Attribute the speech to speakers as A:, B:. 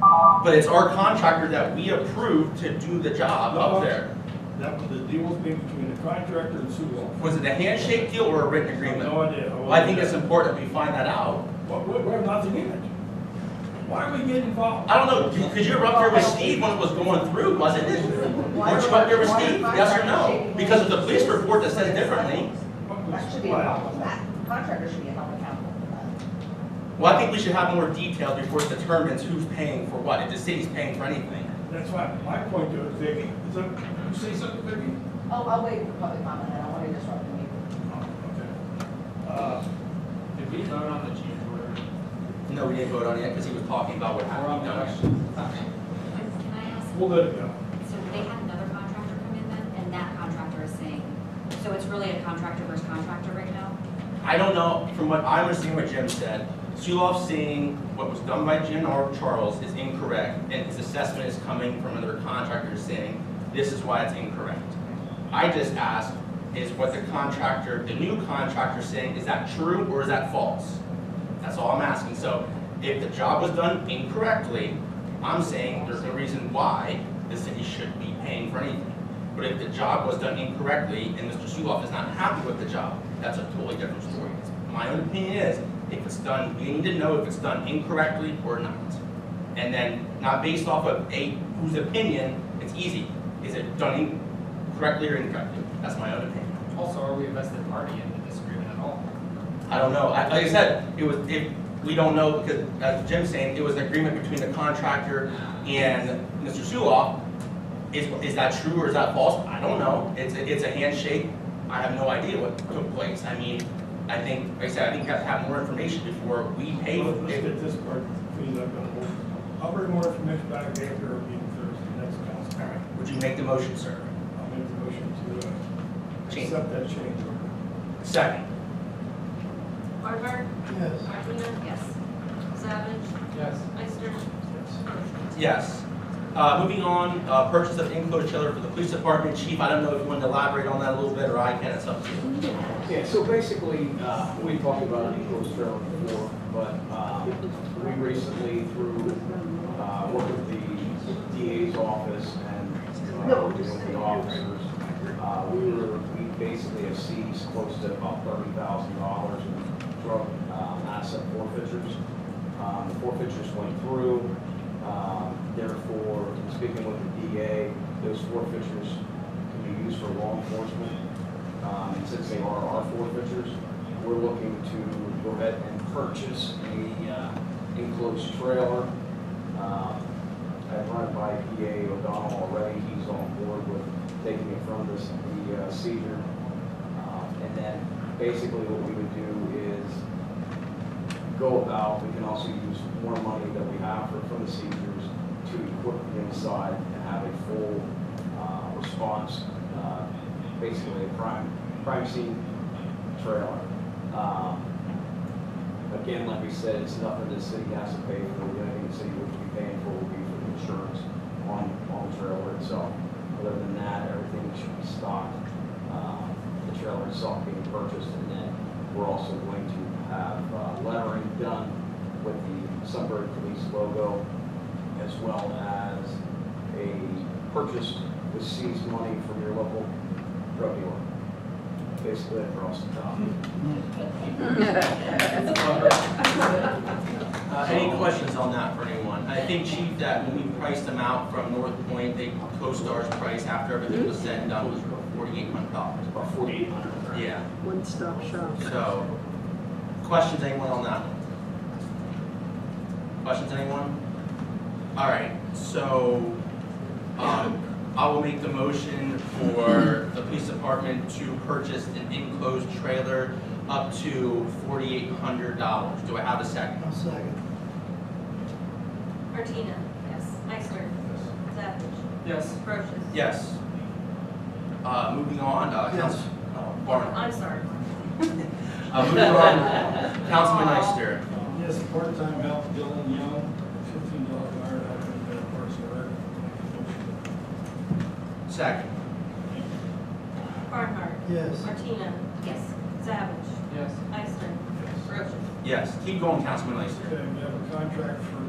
A: but it's our contractor that we approved to do the job up there.
B: That was, the deal was made between the contractor and Sewell.
A: Was it a handshake deal or a written
B: I have No
A: agreement?
B: idea.
A: Well, I think it's important we find that out.
B: But we, we have nothing in it. Why are we getting involved?
A: I don't know, because you were up there with Steve when it was going through, wasn't it? Weren't you up there with Steve? Yes or no? Because of the police report that says differently.
C: That should be involved with that. Contractor should be held accountable for that.
A: Well, I think we should have more detail before it determines who's paying for what, if the city's paying for anything.
B: That's why, my point to it, Vicky, is that, you say something, Vicky?
C: Oh, I'll wait for public comment, I don't want to disrupt the meeting.
B: Oh, okay. Uh,
D: Did we vote on the change order?
A: No, we didn't vote on it because he was talking about what
D: Or on
A: happened.
D: the
A: No.
D: question?
E: Can I ask,
B: We'll let it go.
E: so they had another contractor come in then, and that contractor is saying, so it's really a contractor versus contractor right now?
A: I don't know, from what I understand what Jim said, Suloff saying what was done by Jim or Charles is incorrect, and his assessment is coming from another contractor saying, this is why it's incorrect. I just asked, is what the contractor, the new contractor saying, is that true or is that false? That's all I'm asking, so if the job was done incorrectly, I'm saying there's no reason why the city should be paying for anything. But if the job was done incorrectly and Mr. Suloff is not happy with the job, that's a totally different story. My own opinion is, if it's done, we need to know if it's done incorrectly or not. And then, not based off of a, whose opinion, it's easy. Is it done in- correctly or incorrectly? That's my own opinion.
D: Also, are we a vested party in the disagreement at all?
A: I don't know. I- Like I said, it was, if, we don't know, because as Jim's saying, it was an agreement between the contractor and Mr. Suloff. Is, is that true or is that false? I don't know. It's, a- it's a handshake. I have no idea what took place. I mean, I think, like I said, I think we have to have more information before we pay.
B: Let's
A: for
B: let's
A: it.
B: get this part, cleaned up. and we'll- I'll bring more information back after our meeting Thursday, next council.
A: All right. Would you make the motion, sir?
B: I'll make the motion to, uh,
A: Change.
B: accept that change order.
A: Second.
F: Barnhart,
B: Yes.
F: Martina,
E: Yes.
F: Savage,
D: Yes.
F: Ister,
A: Yes. Uh, moving on, uh, purchase of enclosed trailer for the police department. Chief, I don't know if you want to elaborate on that a little bit or I can, it's up to you.
G: Yeah, so basically, uh, we talked about an enclosed trailer before, but um, we recently, through uh, work with the DA's office and uh, working with the officers, uh, we were, we basically have seized close to about thirty thousand dollars in drug um, asset forfeitures. Um, The Forfeitures went through, um, therefore, speaking with the DA, those forfeitures can be used for law enforcement. Um, and since they are our forfeitures, we're looking to go ahead and purchase a uh, enclosed trailer. Um, I've run it by PA O'Donnell already, he's on board with taking it from this, the uh, seizure. Um, And then basically what we would do is go about, we can also use more money that we have for- from the seizures to equip the inside and have a full uh, response uh, basically a crime, crime scene trailer. Um, Again, like we said, it's nothing the city has to pay for, the only thing the city would be paying for would be for the insurance on, on the trailer itself. Other than that, everything should be stocked, um, the trailer itself being purchased, and then we're also going to have uh, lettering done with the Sunbury Police logo, as well as a purchase with seized money from your local drug dealer. Basically across the top.
A: Uh, Any questions on that for anyone? I think, Chief, that when we priced them out from North Point, they, CoStar's price after everything was said and done was forty-eight hundred dollars.
G: About forty-eight hundred.
A: Yeah,
H: One-stop shop.
A: so, questions, anyone on that? Questions, anyone? All right, so, um, I will make the motion for the police department to purchase an enclosed trailer up to forty-eight hundred dollars. Do I have a second?
H: I'll second.
F: Martina,
E: Yes.
F: Ister, Savage,
D: Yes.
F: Brochus.
A: Yes. Uh, moving on, uh, Council, uh, Barnhart.
F: I'm sorry.
A: Uh, moving on, Councilman Ister.
B: Yes, part-time help, Dylan Young, fifteen dollars an hour, I'll make that person work.
A: Second.
F: Barnhart,
H: Yes.
F: Martina,
E: Yes.
F: Savage,
D: Yes.
F: Ister, Brochus.
A: Yes, keep going, Councilman Ister.
B: Okay, we have a contract for uh,